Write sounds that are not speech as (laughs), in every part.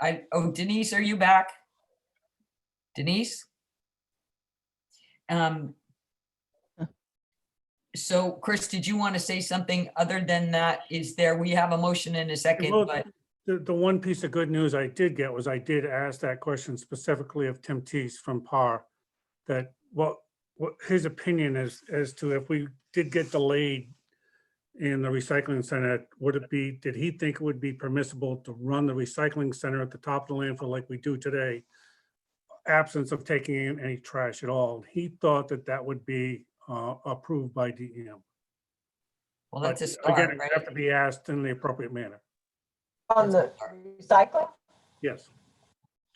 I, oh Denise, are you back? Denise? Um. So Chris, did you want to say something other than that? Is there, we have a motion in a second, will. but, The, the one piece of good news I did get was I did ask that question specifically of Tim Tees from PAR. That what, what his opinion is as to if we did get delayed in the recycling center, would it be, did he think it would be permissible to run the recycling center at the top of the landfill like we do today? Absence of taking in any trash at all. He thought that that would be uh, approved by DEM. well, that's a But again, start, it would Have to right? be asked in the appropriate manner. On the recycling? Yes.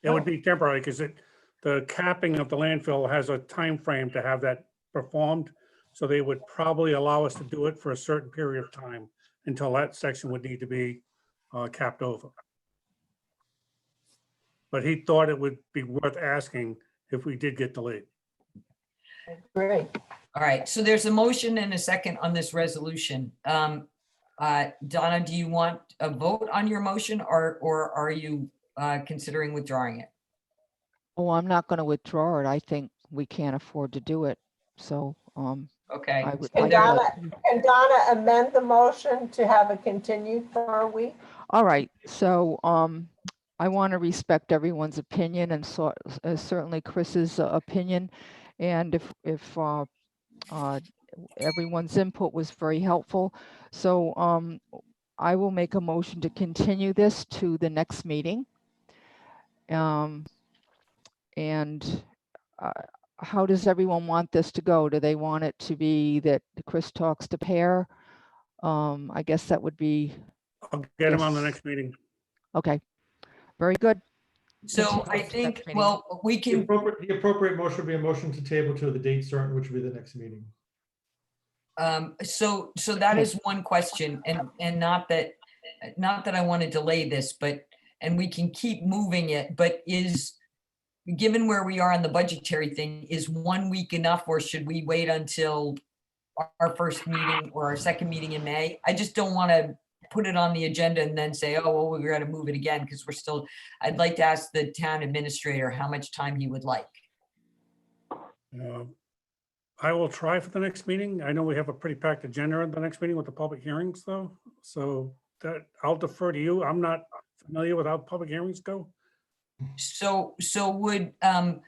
It would be temporary because it, the capping of the landfill has a time frame to have that performed. So they would probably allow us to do it for a certain period of time until that section would need to be uh, capped over. But he thought it would be worth asking if we did get delayed. Great. All right, so there's a motion and a second on this resolution. Um, uh, Donna, do you want a vote on your motion or, or are you, uh, considering withdrawing it? Oh, I'm not gonna withdraw it. I think we can't afford to do it, so, um, Okay, I would. And I would- Can Donna amend the motion to have it continued for a week? All right, so, um, I want to respect everyone's opinion and so, uh, certainly Chris's uh, opinion. And if, if, uh, uh, everyone's input was very helpful. So, um, I will make a motion to continue this to the next meeting. Um, and, uh, how does everyone want this to go? Do they want it to be that Chris talks to Pear? Um, I guess that would be I'll get him on the Yes. next meeting. Okay, very good. so Continue I it to the think, next meeting. well, we The can, appropriate, the appropriate motion would be a motion to table to the date certain, which would be the next meeting. Um, so, so that is one question and, and not that, not that I want to delay this, but, and we can keep moving it, but is, given where we are on the budgetary thing, is one week enough or should we wait until our- our first meeting or our second meeting in May? I just don't want to put it on the agenda and then say, oh, well, we're going to move it again because we're still, I'd like to ask the town administrator how much time he would like. Uh, I will try for the next meeting. I know we have a pretty packed agenda at the next meeting with the public hearings though. So that I'll defer to you. I'm not familiar with how public hearings go. So, so would, um,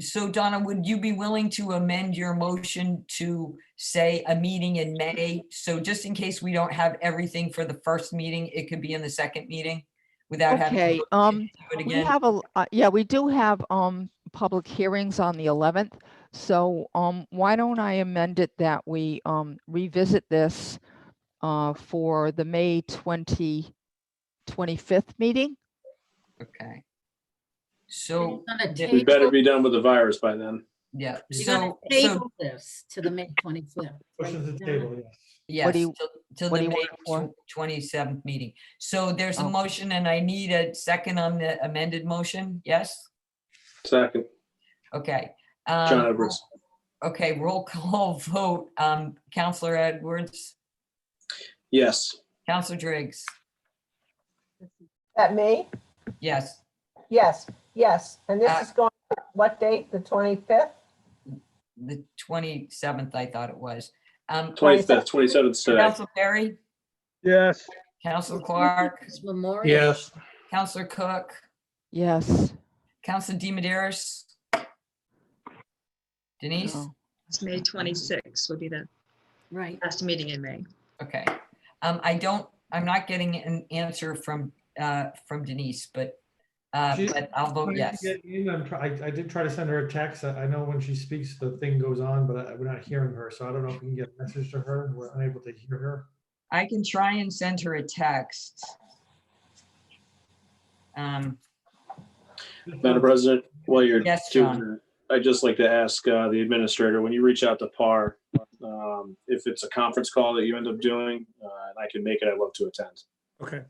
so Donna, would you be willing to amend your motion to say a meeting in May? So just in case we don't have everything for the first meeting, it could be in the second meeting without having. to Okay, do um, it we again? have a, uh, yeah, we do have, um, public hearings on the eleventh. So, um, why don't I amend it that we, um, revisit this, uh, for the May 20 25th meeting? Okay. So, Gonna the- We better table- be done with the virus by then. yeah, You're gonna so, so, table this to the May twenty-fifth. Motion to table, yes. yes, do you- till- till what the do you May want it for? Oh. twenty-seventh meeting. So there's a Okay. motion and I need a second on the amended motion, yes? Second, Okay. um, John Edwards. Okay, roll call (laughs) vote. Um, Counselor Edwards, Yes. Counselor Driggs, That me? yes. Yes, yes. And this Uh, is going, what date? The 25th? The twenty-seventh, I thought it was. Um, Twenty-fifth, twenty-seventh, today. Counselor Perry, Yes. Counselor Clark, Memorial. Yes. Counselor Cook, Yes. Counselor DiMederos. Denise, no. It's May 26 would be the Right. last meeting in May. okay. Um, I don't, I'm not getting an answer from, uh, from Denise, but, uh, She's but I'll vote yes. Get in, I'm try- I, I did try to send her a text. I, I know when she speaks, the thing goes on, but I- we're not hearing her, so I don't know if we can get a message to her. We're unable to hear her. I can try and send her a text. Um, Madam President, while you're Yes, John. doing that, I'd just like to ask uh, the administrator, when you reach out to PAR, um, if it's a conference call that you end up doing, uh, and I can make it, I'd love to attend. Okay.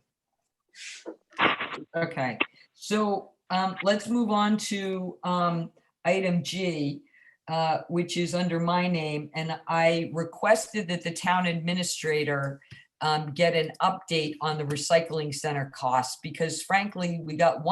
Okay, so um, let's move on to um, item G, uh, which is under my name, and I requested that the town administrator um, get an update on the recycling center costs, because frankly, we got one.